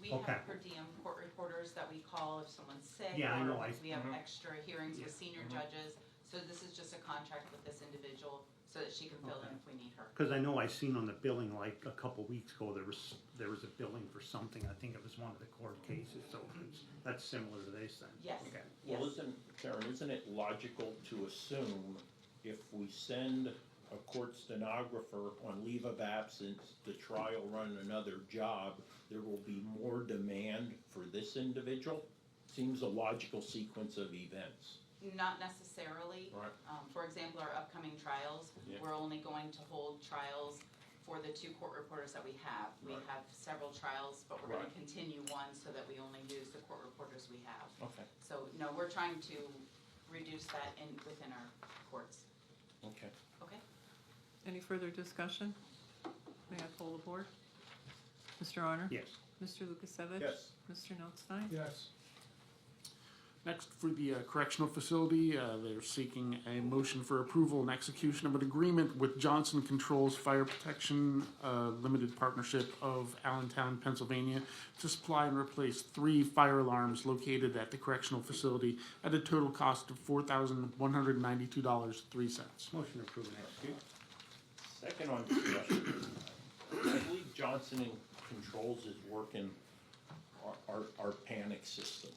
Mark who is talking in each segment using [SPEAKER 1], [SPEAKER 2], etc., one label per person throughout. [SPEAKER 1] We
[SPEAKER 2] Okay.
[SPEAKER 1] have per diem court reporters that we call if someone's sick.
[SPEAKER 2] Yeah, I
[SPEAKER 1] or
[SPEAKER 2] know, I- Mm-hmm.
[SPEAKER 1] We have
[SPEAKER 2] mhm.
[SPEAKER 1] extra hearings with senior judges, so this is just a contract with this individual so that she can fill in if we need her.
[SPEAKER 2] Because I know I seen on the billing like a couple weeks ago, there was, there was a billing for something, I think it was one of the court cases, so it's, that's similar to this then.
[SPEAKER 1] Yes,
[SPEAKER 2] Okay.
[SPEAKER 1] yes.
[SPEAKER 3] Well, isn't, Karen, isn't it logical to assume if we send a court stenographer on leave of absence to trial run another job, there will be more demand for this individual? Seems a logical sequence of events.
[SPEAKER 1] Not necessarily.
[SPEAKER 3] Right.
[SPEAKER 1] Um, for example, our upcoming trials,
[SPEAKER 3] Yeah.
[SPEAKER 1] we're only going to hold trials for the two court reporters that we have. We
[SPEAKER 3] Right.
[SPEAKER 1] have several trials, but we're gonna
[SPEAKER 3] Right.
[SPEAKER 1] continue one so that we only use the court reporters we have.
[SPEAKER 3] Okay.
[SPEAKER 1] So, no, we're trying to reduce that in, within our courts,
[SPEAKER 3] Okay.
[SPEAKER 1] okay?
[SPEAKER 4] Any further discussion? May I poll the board? Mr. Honor?
[SPEAKER 2] Yes,
[SPEAKER 4] Mr. Lukasevich?
[SPEAKER 3] Yes.
[SPEAKER 4] Mr. Notstein?
[SPEAKER 5] Yes. Next, for the uh, correctional facility, uh, they're seeking a motion for approval and execution of an agreement with Johnson Controls Fire Protection uh, Limited Partnership of Allentown, Pennsylvania, to supply and replace three fire alarms located at the correctional facility at a total cost of four thousand one hundred ninety-two dollars three cents.
[SPEAKER 2] motion approved and execute.
[SPEAKER 3] Second on discussion, I believe Johnson and Controls is working our, our, our panic system.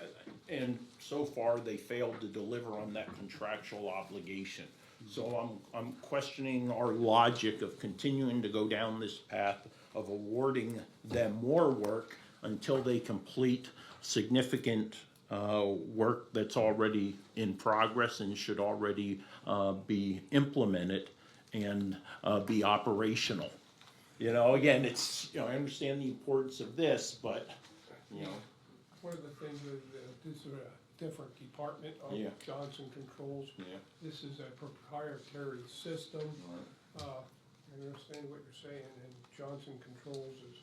[SPEAKER 3] I- I- And so far, they failed to deliver on that contractual obligation. So I'm, I'm questioning our logic of continuing to go down this path of awarding them more work until they complete significant, uh, work that's already in progress and should already, uh, be implemented and, uh, be operational. You know, again, it's, you know, I understand the importance of this, but, you know,
[SPEAKER 6] One of the things that, uh, this is a different department of
[SPEAKER 3] Yeah.
[SPEAKER 6] Johnson Controls.
[SPEAKER 3] Yeah.
[SPEAKER 6] This is a proprietary system. Uh, I understand what you're saying, and Johnson Controls is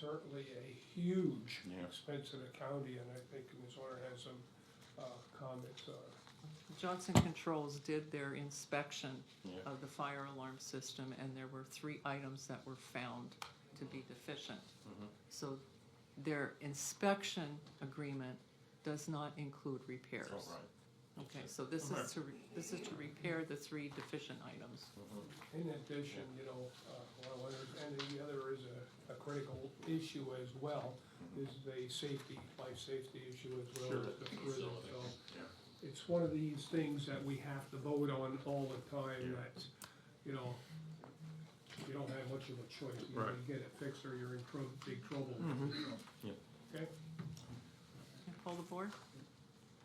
[SPEAKER 6] certainly a huge
[SPEAKER 3] Yeah.
[SPEAKER 6] expense of the county, and I think Ms. Horner has some, uh, comments on it.
[SPEAKER 4] Johnson Controls did their inspection
[SPEAKER 3] Yeah.
[SPEAKER 4] of the fire alarm system, and there were three items that were found to be deficient.
[SPEAKER 3] Mm-hmm.
[SPEAKER 4] So their inspection agreement does not include repairs.
[SPEAKER 3] all right.
[SPEAKER 4] Okay, so this is to, re- this is to repair the three deficient items.
[SPEAKER 3] Mm-hmm.
[SPEAKER 6] In addition, you know, uh, well, there's- and the other is a, a critical issue as well, is the safety, life safety issue as well as the prison, so. It's one of these things that we have to vote on all the time, that, you know, you don't have much of a choice, you either
[SPEAKER 3] Right. Mm-hmm.
[SPEAKER 6] get it fixed or you're in tro- big trouble.
[SPEAKER 3] Yeah.
[SPEAKER 6] Okay?
[SPEAKER 4] Can I poll the board?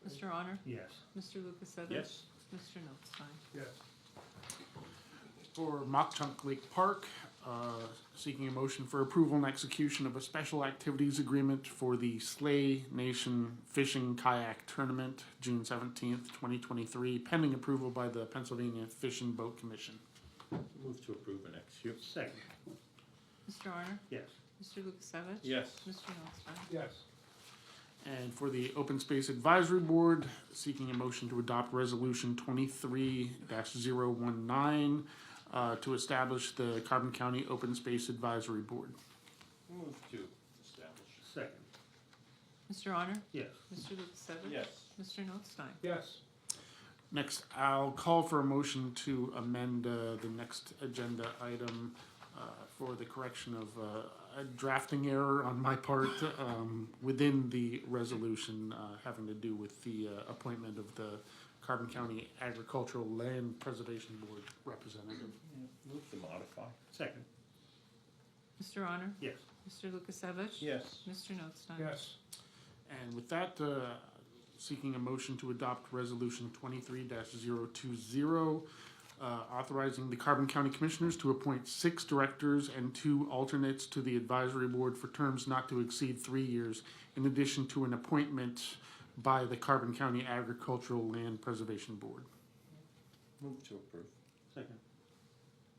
[SPEAKER 4] Mr. Honor?
[SPEAKER 2] Yes,
[SPEAKER 4] Mr. Lukasevich?
[SPEAKER 3] Yes.
[SPEAKER 4] Mr. Notstein?
[SPEAKER 6] Yes.
[SPEAKER 5] For Mock Chunk Lake Park, uh, seeking a motion for approval and execution of a special activities agreement for the Slay Nation Fishing Kayak Tournament, June seventeenth, twenty twenty-three, pending approval by the Pennsylvania Fish and Boat Commission.
[SPEAKER 3] Move to approve and execute.
[SPEAKER 2] second,
[SPEAKER 4] Mr. Honor?
[SPEAKER 2] yes,
[SPEAKER 4] Mr. Lukasevich?
[SPEAKER 3] Yes.
[SPEAKER 4] Mr. Notstein?
[SPEAKER 6] Yes.
[SPEAKER 5] And for the Open Space Advisory Board, seeking a motion to adopt Resolution twenty-three 19 uh, to establish the Carbon County Open Space Advisory Board.
[SPEAKER 3] Move to establish.
[SPEAKER 2] second,
[SPEAKER 4] Mr. Honor?
[SPEAKER 2] yes,
[SPEAKER 4] Mr. Lukasevich?
[SPEAKER 3] Yes.
[SPEAKER 4] Mr. Notstein?
[SPEAKER 6] Yes.
[SPEAKER 5] Next, I'll call for a motion to amend uh, the next agenda item uh, for the correction of uh, a drafting error on my part um, within the resolution uh, having to do with the uh, appointment of the Carbon County Agricultural Land Preservation Board representative.
[SPEAKER 3] Move to modify.
[SPEAKER 2] second,
[SPEAKER 4] Mr. Honor?
[SPEAKER 2] yes,
[SPEAKER 4] Mr. Lukasevich?
[SPEAKER 3] Yes.
[SPEAKER 4] Mr. Notstein?
[SPEAKER 6] Yes.
[SPEAKER 5] And with that, uh, seeking a motion to adopt Resolution twenty-three 20 uh, authorizing the Carbon County Commissioners to appoint six directors and two alternates to the advisory board for terms not to exceed three years, in addition to an appointment by the Carbon County Agricultural Land Preservation Board.
[SPEAKER 3] Move to approve.
[SPEAKER 2] second,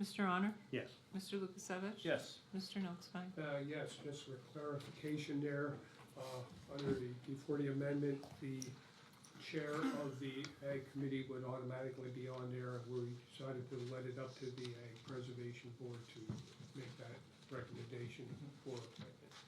[SPEAKER 4] Mr. Honor?
[SPEAKER 2] yes,
[SPEAKER 4] Mr. Lukasevich?
[SPEAKER 3] Yes.
[SPEAKER 4] Mr. Notstein?
[SPEAKER 6] Uh, yes, just for clarification there, uh, under the D forty amendment, the chair of the ag committee would automatically be on there. We decided to let it up to the ag preservation board to make that recommendation for